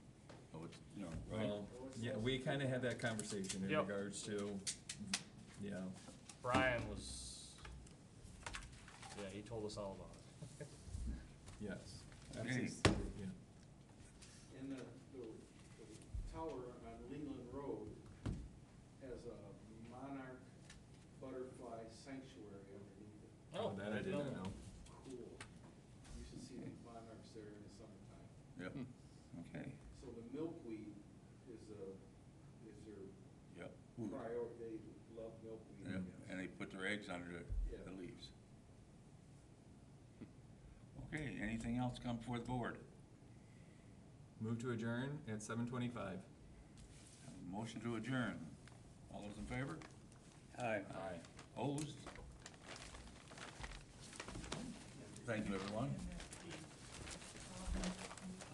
Oh, Um, we kinda had that conversation in Yep. regards to, you know, Brian was, yeah, he told us all about it. yes, Okay. yeah. And the, the, the tower on Leland Road has a monarch butterfly sanctuary underneath it. Oh, That I didn't know. Cool. You should see the monarchs there in the summertime. Yep, okay, So the milkweed is a, is their yep. Ooh, priority, they love milkweed, Hmm. yeah, I And guess. they put their eggs under the, the Yeah. leaves. Okay, anything else come before the board? Move to adjourn at seven twenty-five. Have a Motion to adjourn. All those in favor? Aye. Opposed? Thank you, everyone.